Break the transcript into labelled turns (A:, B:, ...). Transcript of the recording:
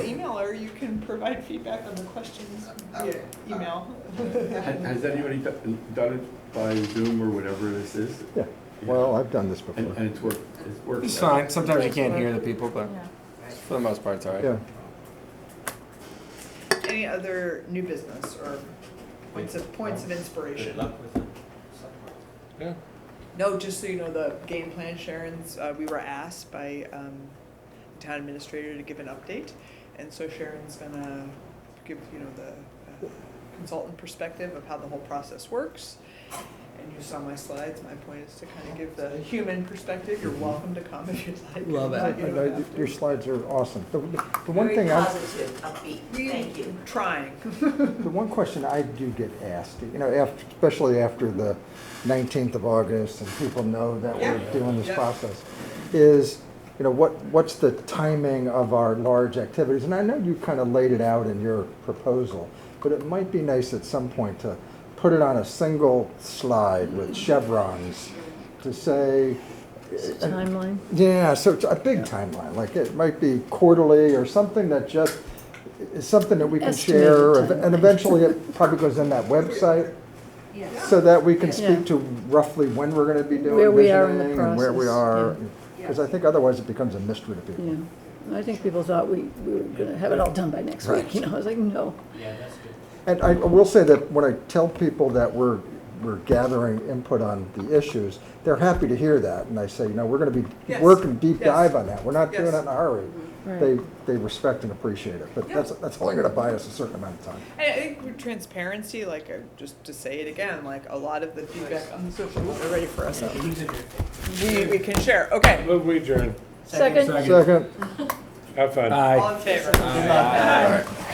A: or you can provide feedback on the questions via email.
B: Ha- Has anybody do- done it by Zoom or whatever this is?
C: Yeah, well, I've done this before.
B: And, and it's worked, it's worked.
D: It's
B: out.
D: fine. Sometimes you can't hear the people, but for the most part, it's all right.
C: Yeah,
A: Any other new business or points of, points of
E: Good
A: inspiration?
E: luck with it.
A: No, just so you know, the game plan, Sharon's, uh, we were asked by, um, the town administrator to give an update. And so Sharon's gonna give, you know, the uh, consultant perspective of how the whole process works. And you saw my slides, my point is to kind of give the human perspective, you're welcome to come if you'd like.
E: Love it.
A: but you
C: And
A: don't
C: I-
A: have
C: your
A: to.
C: slides are awesome. The the one
F: Very
C: thing, I-
F: positive, upbeat, thank you.
A: Trying.
C: the one question I do get asked, you know, after, especially after the 19th of August and people know that we're
A: Yeah.
C: doing this
A: Yeah.
C: process, is, you know, what, what's the timing of our large activities? And I know you kind of laid it out in your proposal, but it might be nice at some point to put it on a single slide with chevrons to say,
G: Timeline?
C: Yeah, so it's a big timeline, like it might be quarterly or something that just, is something that we can
G: Estimated
C: share. And
G: timeline.
C: eventually it probably goes on that website
F: Yes.
C: so that we can
G: Yeah.
C: speak to roughly when we're gonna be doing
G: Where we are in the
C: visioning and where we are.
G: process,
C: Because I think otherwise it becomes a mystery to people.
G: Yeah, I think people thought we, we were gonna have it all done by next week, you know, I was like, no.
E: Yeah, that's good.
C: And I will say that when I tell people that we're, we're gathering input on the issues, they're happy to hear that. And I say, you know, we're gonna be
A: Yes.
C: working deep
A: Yes.
C: dive on that. We're not doing
A: Yes.
C: it in a hurry.
G: Right.
C: They, they respect and appreciate it, but that's, that's only gonna buy us a certain amount of time.
A: I I think with transparency, like, uh, just to say it again, like, a lot of the feedback on the social, media are ready for us. We, we can share, okay.
H: Move we adjourn.
G: Second?
C: Second.
H: Have fun.
A: All in favor?
E: Good luck.